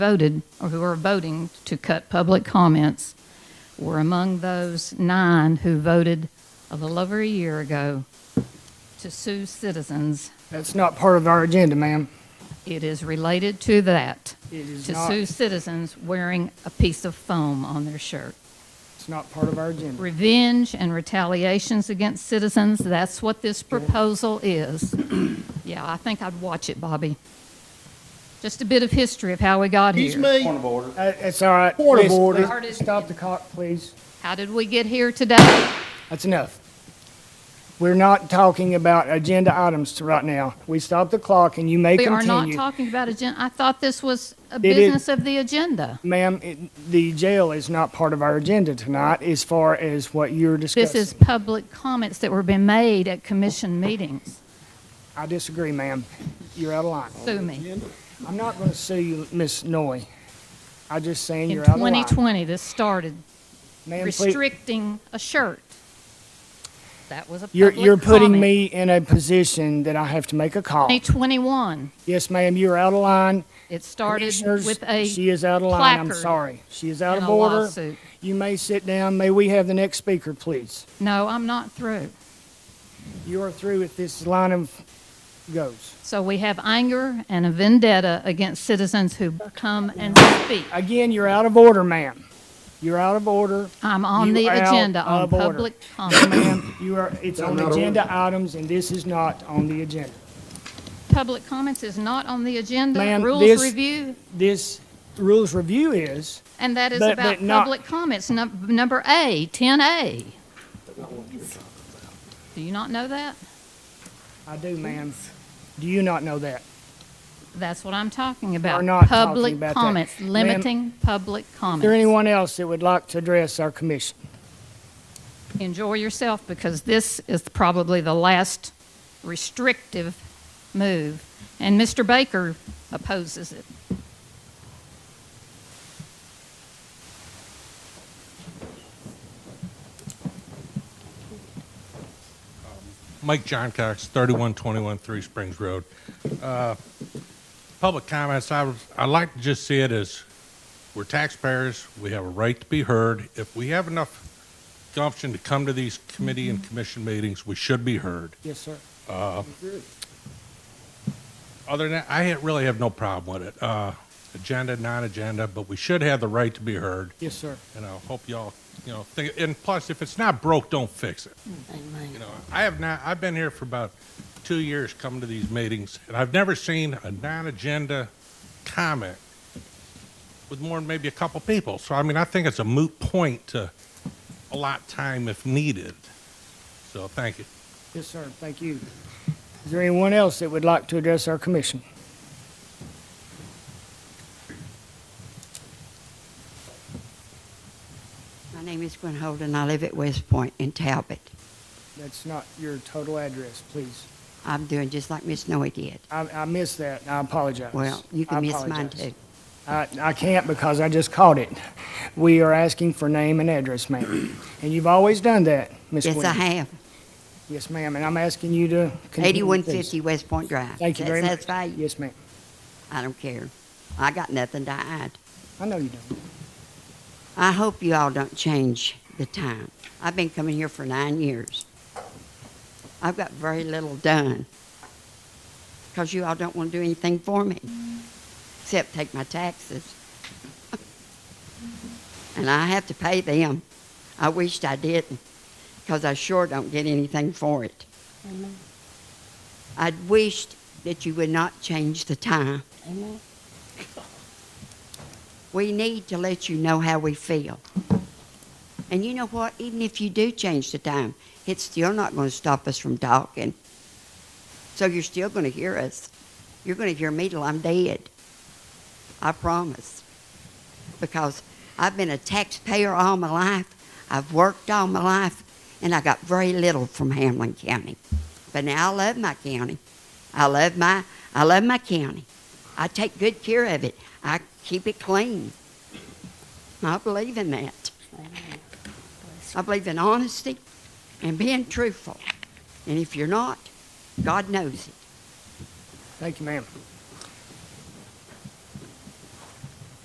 voted or who are voting to cut public comments were among those nine who voted a little over a year ago to sue citizens. That's not part of our agenda, ma'am. It is related to that, It is to not, sue citizens wearing a piece of foam on their shirt. it's not part of our agenda. Revenge and retaliations against citizens, that's what this proposal is. Yeah, I think I'd watch it, Bobby. Just a bit of history of how we got Excuse here. me. Point of order. Uh, It's all right. Point of Please, order. please, Stop the clock, please. How did we get here today? That's enough. We're not talking about agenda items to right now. We stop the clock and you may We are not continue. talking about agenda. I thought this was a is- business of the agenda. Ma'am, it- the jail is not part of our agenda tonight as far as what you're This is discussing. public comments that were being made at commission meetings. I disagree, ma'am. You're out of line. Sue me. I'm not going to sue you, Ms. Noy. I'm just saying In you're out of line. 2020, this started Ma'am, please- restricting a shirt. That was a public You're, comment. you're putting me in a position that I have to make a call. 2021, Yes, ma'am, you're out of line. it started Commissioners, with a She is out of line, I'm placard sorry. She is out and of a order. lawsuit. You may sit down. May we have the next speaker, please? No, I'm not through. You are through if this line of goes. So we have anger and a vendetta against citizens who come and speak. Again, you're out of order, ma'am. You're out of order. I'm on You the are out agenda on of order. public comment. Ma'am, you are, it's on agenda items, and this is not on the agenda. Public comments is not on the agenda. Ma'am, Rules this- review, This rules review is, and that is but- about but not- public comments, num- number A, 10A. Do you not know that? I do, ma'am. Do you not know that? That's what I'm talking about. not talking Public about that. comments, Ma'am, limiting public Is there comments. anyone else that would like to address our commission? Enjoy yourself because this is probably the last restrictive move. And Mr. Baker opposes it. Mike John Cox, 3121 Three Springs Road. Uh, Public comments, I, was- I like to just see it as, we're taxpayers, we have a right to be heard. If we have enough gumption to come to these committee and commission meetings, we should be heard. Yes, sir. Other than that, I ha- really have no problem with it. Uh, Agenda, non-agenda, but we should have the right to be heard. Yes, sir. And I hope y'all, you know, think, and plus, if it's not broke, don't fix it. You know, I have not, I've been here for about two years coming to these meetings, and I've never seen a non-agenda comment with more than maybe a couple people. So, I mean, I think it's a moot point to allot time if needed. So, thank you. Yes, sir. Thank you. Is there anyone else that would like to address our commission? My name is Gwen Holden. I live at West Point in Talbot. That's not your total address, please. I'm doing just like Miss Noe did. I, I missed that. I apologize. Well, you I can miss mine apologize. too. I, I can't because I just caught it. We are asking for name and address, ma'am. And you've always done that, Ms. Yes, Quinn. I have. Yes, ma'am, and I'm asking you to continue. please. 8150 West Point Drive. Thank you very much. That's satisfy you? Yes, ma'am. I don't care. I got nothing to hide. I know you don't. I hope you all don't change the time. I've been coming here for nine years. I've got very little done because you all don't want to do anything for me except take my taxes. and I have to pay them. I wished I didn't because I sure don't get anything for it. I'd wished that you would not change the time. We need to let you know how we feel. And you know what? Even if you do change the time, it's still not going to stop us from talking. So you're still going to hear us. You're going to hear me till I'm dead. I promise. Because I've been a taxpayer all my life, I've worked all my life, and I got very little from Hamlin County. But now I love my county. I love my, I love my county. I take good care of it. I keep it clean. I believe in that. I believe in honesty and being truthful. And if you're not, God knows it. Thank you, ma'am.